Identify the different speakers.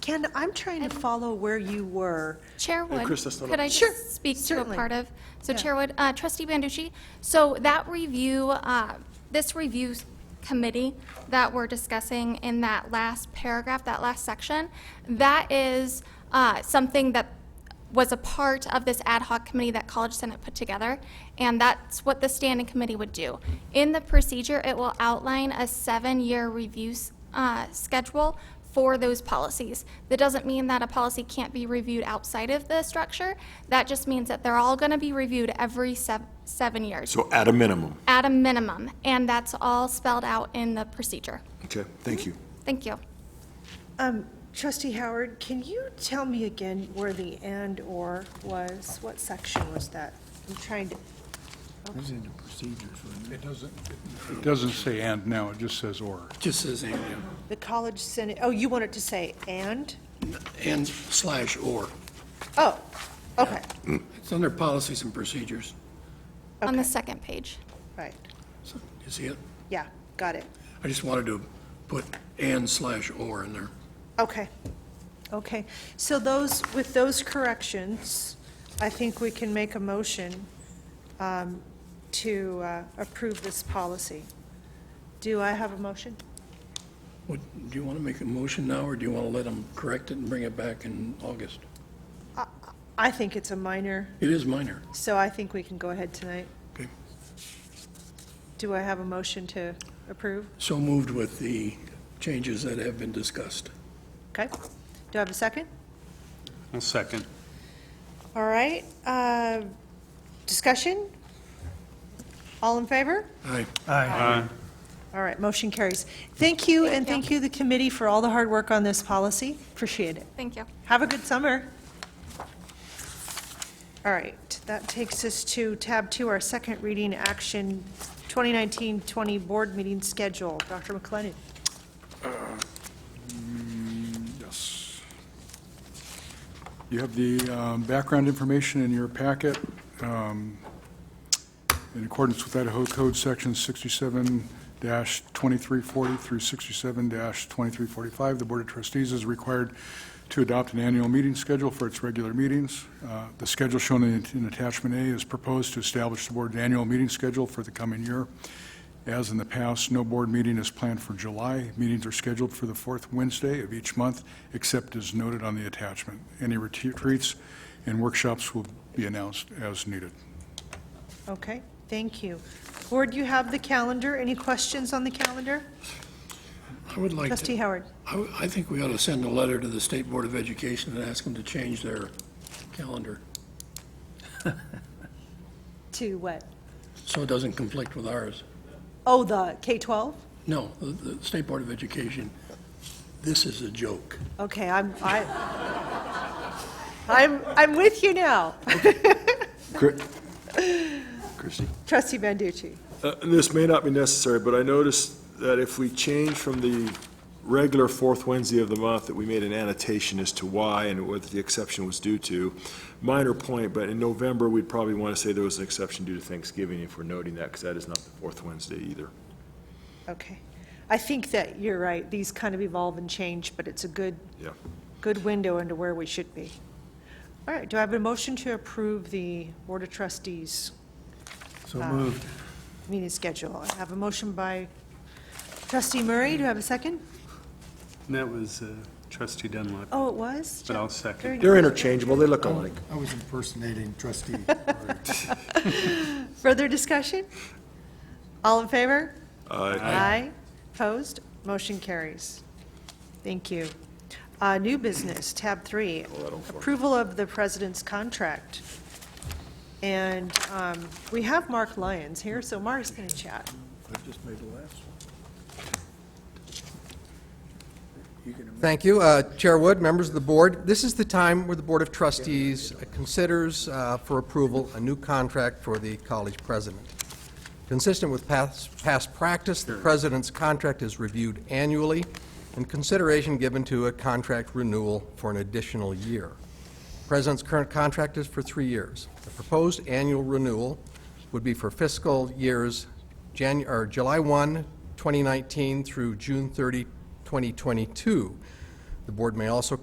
Speaker 1: Ken, I'm trying to follow where you were.
Speaker 2: Chair Wood,
Speaker 3: Chris, that's not
Speaker 2: could
Speaker 3: up.
Speaker 2: I
Speaker 1: Sure,
Speaker 2: just speak to a
Speaker 1: certainly.
Speaker 2: part of? So
Speaker 1: Yeah.
Speaker 2: Chair Wood, uh, trustee Banducci, so that review, uh, this review s- committee that we're discussing in that last paragraph, that last section, that is uh, something that was a part of this ad hoc committee that College Senate put together, and that's what the standing committee would do. In the procedure, it will outline a seven-year review s- uh, schedule for those policies. That doesn't mean that a policy can't be reviewed outside of the structure. That just means that they're all going to be reviewed every sev- seven years,
Speaker 3: So at a minimum.
Speaker 2: at a minimum, and that's all spelled out in the procedure.
Speaker 3: Okay, thank you.
Speaker 2: Thank you.
Speaker 1: Um, Trustee Howard, can you tell me again where the and/or was? What section was that? I'm trying to,
Speaker 4: It doesn't, it doesn't say and now, it just says or.
Speaker 5: Just uh, says and,
Speaker 1: the College Senate, oh, you wanted to say and?
Speaker 5: yeah. and slash or.
Speaker 1: Oh, okay,
Speaker 5: It's under policies and procedures.
Speaker 2: On the second page.
Speaker 1: right,
Speaker 5: So, You see it?
Speaker 1: yeah, got it.
Speaker 5: I just wanted to put and slash or in there.
Speaker 1: Okay, okay. So those, with those corrections, I think we can make a motion um, to uh, approve this policy. Do I have a motion?
Speaker 5: What, do you want to make a motion now, or do you want to let them correct it and bring it back in August?
Speaker 1: I think it's a minor,
Speaker 5: It is minor,
Speaker 1: so I think we can go ahead tonight.
Speaker 5: okay?
Speaker 1: Do I have a motion to approve?
Speaker 5: So moved with the changes that have been discussed.
Speaker 1: Okay. Do I have a second?
Speaker 4: A second.
Speaker 1: All right, uh, discussion? All in favor?
Speaker 5: Aye.
Speaker 1: All right, motion carries. Thank you, and thank you, the committee, for all the hard work on this policy. Appreciate it.
Speaker 2: Thank you.
Speaker 1: Have a good summer. All right, that takes us to tab two, our second reading action, 2019-20 board meeting schedule. Dr. McLennan.
Speaker 4: Yes. You have the um, background information in your packet. Um, In accordance with Idaho Code Section 67-2340 through 67-2345, the Board of Trustees is required to adopt an annual meeting schedule for its regular meetings. Uh, The schedule shown in in Attachment A is proposed to establish the board's annual meeting schedule for the coming year. As in the past, no board meeting is planned for July. Meetings are scheduled for the fourth Wednesday of each month, except as noted on the attachment. Any retreats and workshops will be announced as needed.
Speaker 1: Okay, thank you. Board, you have the calendar. Any questions on the calendar?
Speaker 5: I would like
Speaker 1: Trustee
Speaker 5: to,
Speaker 1: Howard.
Speaker 5: I, would- I think we ought to send a letter to the State Board of Education and ask them to change their calendar,
Speaker 1: To what?
Speaker 5: so it doesn't conflict with ours.
Speaker 1: Oh, the K-12?
Speaker 5: No, the, the State Board of Education, this is a joke.
Speaker 1: Okay, I'm, I, I'm, I'm with you now.
Speaker 3: Christie?
Speaker 1: Trustee Banducci.
Speaker 3: Uh, This may not be necessary, but I noticed that if we change from the regular fourth Wednesday of the month, that we made an annotation as to why and what the exception was due to. Minor point, but in November, we'd probably want to say there was an exception due to Thanksgiving if we're noting that, because that is not the fourth Wednesday either.
Speaker 1: Okay. I think that you're right. These kind of evolve and change, but it's a good,
Speaker 3: Yeah.
Speaker 1: good window into where we should be. All right, do I have a motion to approve the Board of Trustees? So moved. Meeting schedule. I have a motion by trustee Murray. Do I have a second?
Speaker 6: And that was uh, trustee Dunlap.
Speaker 1: Oh, it was?
Speaker 6: But I'll second.
Speaker 1: Very nice.
Speaker 3: They're interchangeable, they look alike.
Speaker 7: I was impersonating trustee.
Speaker 1: Further discussion? All in favor?
Speaker 3: Uh,
Speaker 1: Aye. Opposed? Motion carries. Thank you. Uh, New business, tab three, approval of the president's contract. And um, we have Mark Lyons here, so Mark's going to chat.
Speaker 7: I just made the last one. You can
Speaker 8: Thank you. Uh, Chair Wood, members of the board, this is the time where the Board of Trustees considers uh, for approval a new contract for the college president. Consistent with past past practice, the president's contract is reviewed annually and consideration given to a contract renewal for an additional year. President's current contract is for three years. The proposed annual renewal would be for fiscal years Janu- or July 1, 2019 through June 30, 2022. The board may also